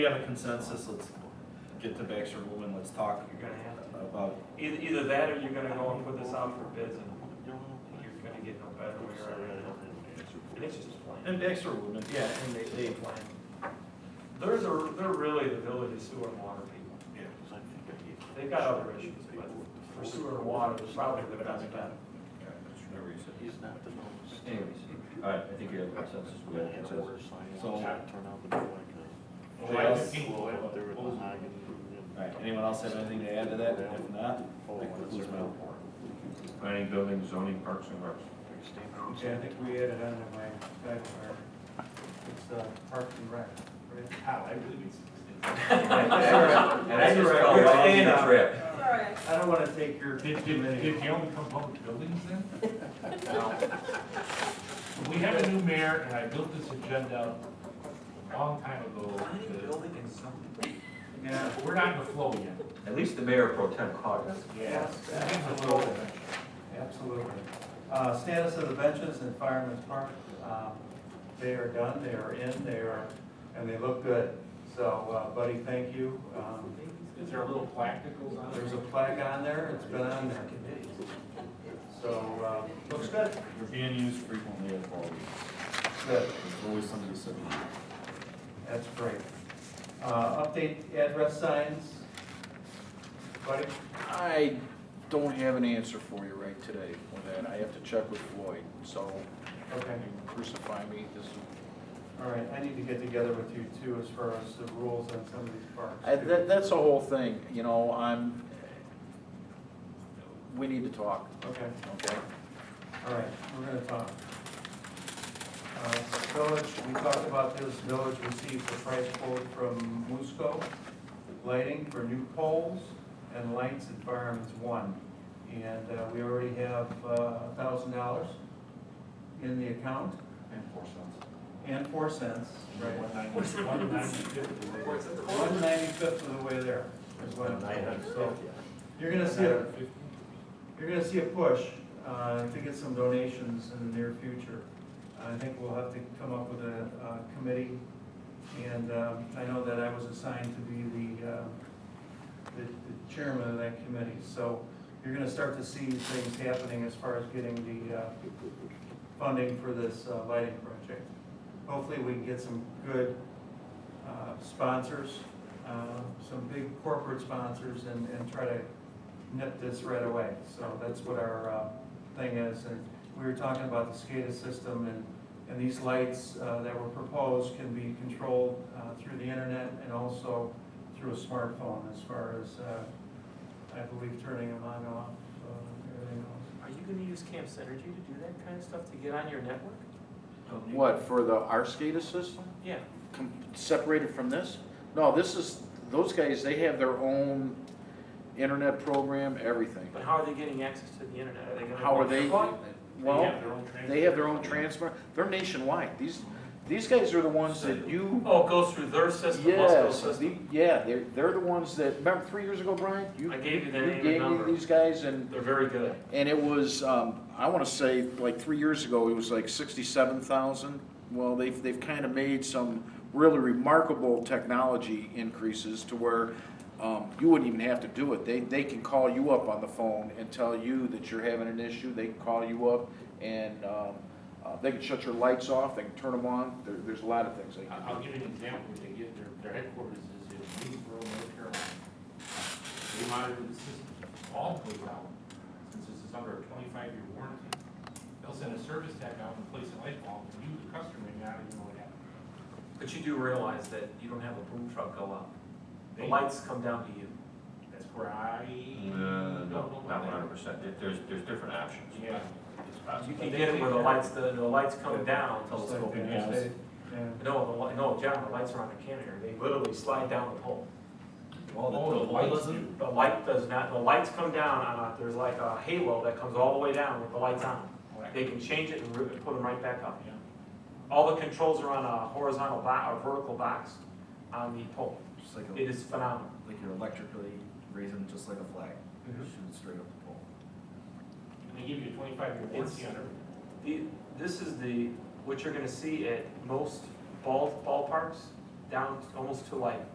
We have a consensus, let's get to Baxter Woman, let's talk You're gonna have to. about, Either, either that or you're gonna go and put this out for bids and you're gonna get no better way around it. And it's just plain. and Baxter Woman, yeah, and they, they, There's a, they're really the village's sewer and water people. They've got other issues, but for sewer and water, it's probably the best bet. He's not the most. anyways, all right, I think we have a consensus, we have a consensus. So- Anybody else? All right, anyone else have anything to add to that? If not, Oh, that concludes my report. Planning, building, zoning, parks and recs. Yeah, I think we added on to my, back where it's uh, Park and Rec. How, I really need And I just felt You're wrong staying in the up. trip. Sorry. I don't want to take your. Did, too did, many. did you only come home with buildings then? We have a new mayor, and I built this agenda a long time ago. Yeah. but We're not in the flow yet. At least the mayor pro tem caught us. Yes, Flow. absolutely, absolutely. Uh, Status of the benches in Fireman's Park, um, they are done, they are in, they are, and they look good. So uh, Buddy, thank you. Um, Is there a little plaque that goes on? There's a flag on there, it's been on there. So, uh, looks good, You're being used frequently as well. good. There's always somebody sitting. That's great. Uh, Update address signs. Buddy? I don't have an answer for you right today on that. I have to check with Floyd, so Okay, you crucify me, this is. all right, I need to get together with you too as far as the rules on some of these parks. I, too. that, that's the whole thing, you know, I'm, we need to talk, Okay, okay? all right, we're gonna talk. Uh, Village, we talked about this, Village received a price quote from Musco, lighting for new poles and lights at Fireman's One. And uh, we already have a thousand dollars in the account And four cents. and four cents, right? One ninety, one ninety-fifty. One ninety-fifth of the way there is what I'm told, so. You're gonna see a, you're gonna see a push, uh, to get some donations in the near future. I think we'll have to come up with a, uh, committee, and, um, I know that I was assigned to be the, uh, the the chairman of that committee, so you're gonna start to see things happening as far as getting the, uh, funding for this uh, lighting project. Hopefully, we can get some good, uh, sponsors, uh, some big corporate sponsors and, and try to nip this right away. So that's what our uh, thing is. And we were talking about the SCADA system and, and these lights uh, that were proposed can be controlled uh, through the internet and also through a smartphone as far as, uh, I believe, turning them on and off, uh, everything else. Are you gonna use Camp Synergy to do that kind of stuff to get on your network? What, for the RSCADA system, Yeah. com- separated from this? No, this is, those guys, they have their own internet program, everything. But how are they getting access to the internet? Are they gonna? How are they, well, their own they have their own transfer, they're nationwide, these, these guys are the ones that you, Oh, it goes through their system, Musco yes, the- system. yeah, they're, they're the ones that, remember three years ago, Brian? You I gave you their you name and gave me number. These guys and They're very good. And it was, um, I wanna say, like, three years ago, it was like sixty-seven thousand. Well, they've, they've kinda made some really remarkable technology increases to where, um, you wouldn't even have to do it. They, they can call you up on the phone and tell you that you're having an issue, they can call you up and, um, uh, they can shut your lights off, they can turn them on, there, there's a lot of things they I- can I'll do. give you an example, they get, their, their headquarters is in Greensboro, North Carolina. They monitor the system, all goes out, since this is under a twenty-five year warranty. They'll send a service tech out and place a light bulb, and you, the customer, may not even know what happened. But you do realize that you don't have a boom truck go up. The They- lights come down to you. That's where I. No, Uh, don't know Uh, no, not one about hundred percent. There's, there's different options. that. Yeah. It's You possible. can get it where the lights, the, the lights come down until it's Just like open. they house. say, yeah. No, the, li- no, John, the lights are on the canter, they literally slide down the pole. Oh, the lights do. The light does not, the lights come down on a, there's like a halo that comes all the way down with the lights on. They can change it and rip it, put them right back up. Yeah. All the controls are on a horizontal bo, a vertical box on the pole. Just like, It a- is phenomenal. like you're electrically raising just like a flag, Mhm. shooting straight up the pole. And they give you a twenty-five year warranty on everything. The, this is the, what you're gonna see at most ball, ballparks, down almost to like